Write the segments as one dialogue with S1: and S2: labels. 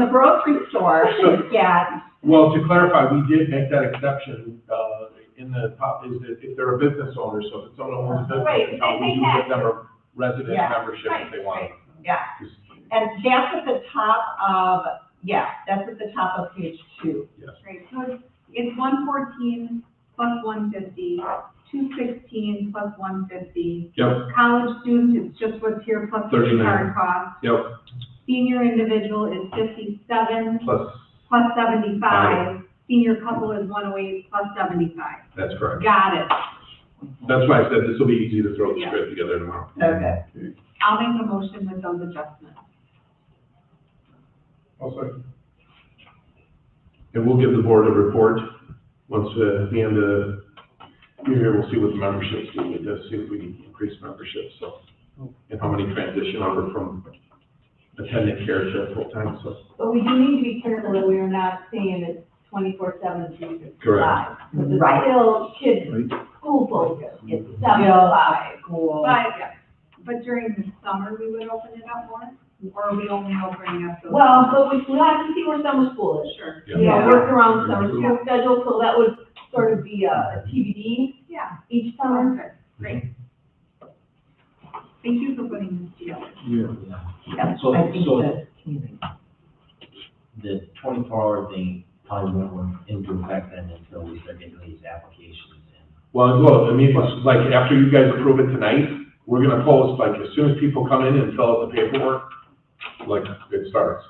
S1: the grocery store, yeah,
S2: Well, to clarify, we did make that exception, uh, in the top, is that if they're a business owner, so if someone owns a
S1: Right,
S2: business, account, we
S1: they
S2: do
S1: have
S2: give them a resident
S1: Yeah,
S2: membership if they want.
S1: yeah. And that's at the top of, yeah, that's at the top of page two.
S3: Right, so it's, it's one fourteen plus one fifty, two sixteen plus one fifty.
S2: Yep,
S3: College student is just what's here plus the
S2: 39.
S3: card cost.
S2: yep,
S3: Senior individual is fifty-seven
S2: plus,
S3: plus seventy-five. Senior couple is one oh eight plus seventy-five.
S2: that's correct.
S3: Got it.
S2: That's why I said this will be easy to throw the
S3: Yeah.
S2: script together tomorrow.
S4: Mm-hmm.
S1: Okay.
S3: I'll make a motion with those adjustments.
S2: Also. And we'll give the board a report, once, uh, at the end of the year, we'll see what the memberships do, we just see if we can increase membership, so. And how many transition over from attendant care to full-time, so.
S5: But we do need to be careful that we are not saying it's twenty-four seven, three sixty-five. Because it's
S1: Right.
S5: still kids, school focus, it's seven to five.
S1: Cool.
S3: But, but during the summer, we would open it up more, or are we only opening up those?
S5: Well, but we, we have to see where summer school is.
S3: Sure,
S5: You know,
S1: Yeah.
S5: work around summer school schedule, so that would sort of be a TBD
S3: yeah,
S5: each summer.
S3: perfect, great. Thank you for putting this together.
S6: Yeah.
S1: Yeah,
S4: So-
S1: I think
S4: so-
S1: that-
S4: the twenty-four hour thing probably won't into effect then until we start getting these applications in.
S2: Well, look, I mean, it's like, after you guys approve it tonight, we're gonna post, like, as soon as people come in and fill out the paperwork, like, it starts.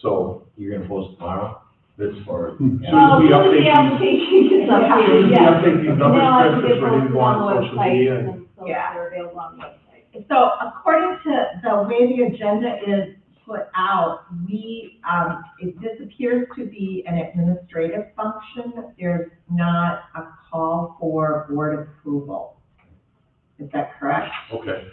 S2: So,
S4: You're gonna post tomorrow?
S2: it's, as
S4: Or?
S2: soon
S5: Well,
S2: as we
S5: as soon as the
S2: update these,
S5: application is updated,
S2: we
S5: yes.
S2: update these numbers,
S5: Now I can
S2: Chris,
S5: get
S2: it's ready to
S5: posted
S2: go
S5: the
S2: on social
S5: website,
S2: media. and-
S5: and So
S1: Yeah.
S5: they're available on the website.
S1: So according to the way the agenda is put out, we, um, it, this appears to be an administrative function. There's not a call for board approval. Is that correct?
S2: Okay,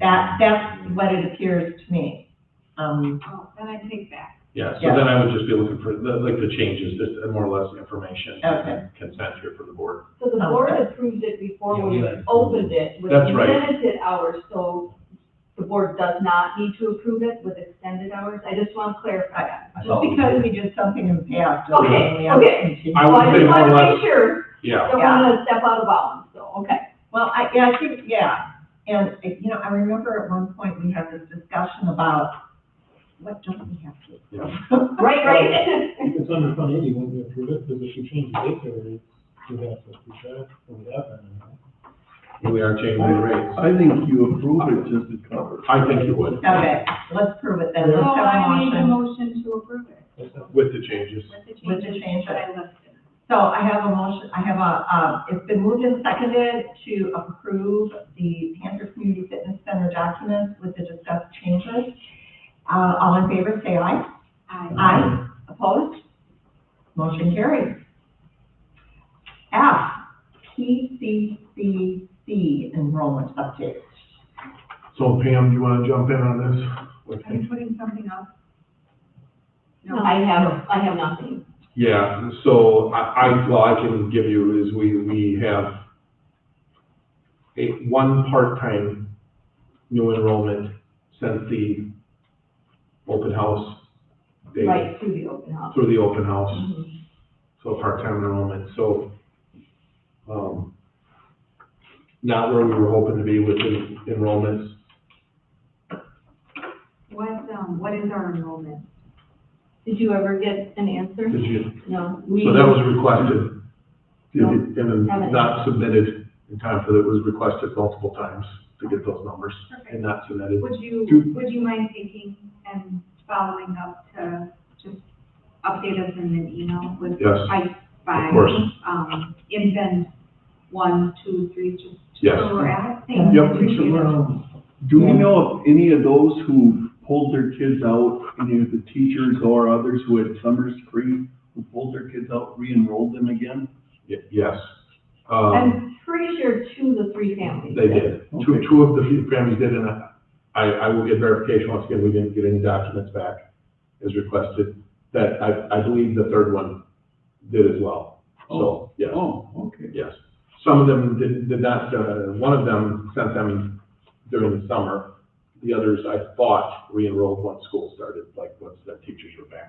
S1: That, that's what it appears to me. Um,
S3: Oh, then I take back.
S2: yeah, so
S1: Yeah.
S2: then I would just be looking for, the- like, the changes, just more or less information.
S1: Okay.
S2: Consent here for the board.
S5: So the board approved it before
S4: Yeah,
S5: we
S4: we had-
S5: opened it with
S2: That's right.
S5: limited hours, so the board does not need to approve it with extended hours. I just want to clarify that.
S4: I
S1: just
S4: thought we
S1: because
S4: did.
S1: we did something in the past. doesn't
S5: Okay,
S1: mean we have to
S5: okay.
S1: continue.
S2: I would say more
S5: just want
S2: or
S5: to
S2: less,
S5: make sure,
S2: yeah,
S5: don't want to step out of bounds, so, okay.
S1: Well, I, yeah, I think, yeah, and, uh, you know, I remember at one point, we had this discussion about, what don't we have to? do?
S5: Right, right?
S6: If it's under fund eighty, when we approve it, because if you change the date there, you have to retract or whatever.
S2: we are changing the rates.
S7: I think you approve it just to cover.
S2: I think you would,
S1: Okay, let's prove it then,
S3: So
S1: let's have
S3: Oh, I
S1: a
S3: made a
S1: motion.
S3: motion to approve it
S6: That's not-
S2: with the changes.
S3: with the
S1: With the
S3: changes that I listed.
S1: So I have a motion, I have a, um, it's been moved and seconded to approve the Panther Community Fitness Center documents with the discussed changes. Uh, all in favor, say aye.
S3: I,
S1: Aye. Opposed? Motion carries. F, PCCC enrollment update.
S2: So Pam, you wanna jump in on this? What do you
S3: are
S2: think?
S3: you putting something up? No.
S5: I have, I have nothing.
S2: Yeah, so I, I, well, I can give you is we, we have a, one part-time new enrollment since the open house day,
S5: Right, to the open house.
S2: through the open house, so part-time enrollment, so, um, not where we were hoping to be with en- enrollments.
S3: What, um, what is our enrollment?
S5: Did you ever get an answer?
S2: Did you-
S5: No.
S2: So that was um, requested, and then not submitted in time for that, it was requested multiple times to get those numbers. and
S3: Perfect.
S2: not submitted.
S3: Would you,
S2: Two.
S3: would you mind taking and following up to just update us in an email with
S2: Yes,
S3: I
S2: of
S3: by,
S2: course.
S3: um, invent one, two, three, just
S2: Yes.
S3: where we're at? Thank you.
S2: Yep.
S3: Appreciate it.
S7: Do we know if any of those who pulled their kids out, any of the teachers or others who had summers free, who pulled their kids out, re-enrolled them again?
S2: Y- Yes. Um,
S5: I'm pretty sure two of the three families.
S2: they did. Two, two of the few families did, and I, I I will get verification once again, we didn't get any documents back as requested. That I, I believe the third one did as well. So, yes,
S7: Oh, okay.
S2: yes. Some of them did, did not, uh, one of them sent them during the summer The others, I thought, re-enrolled once school started, like once their teachers were back.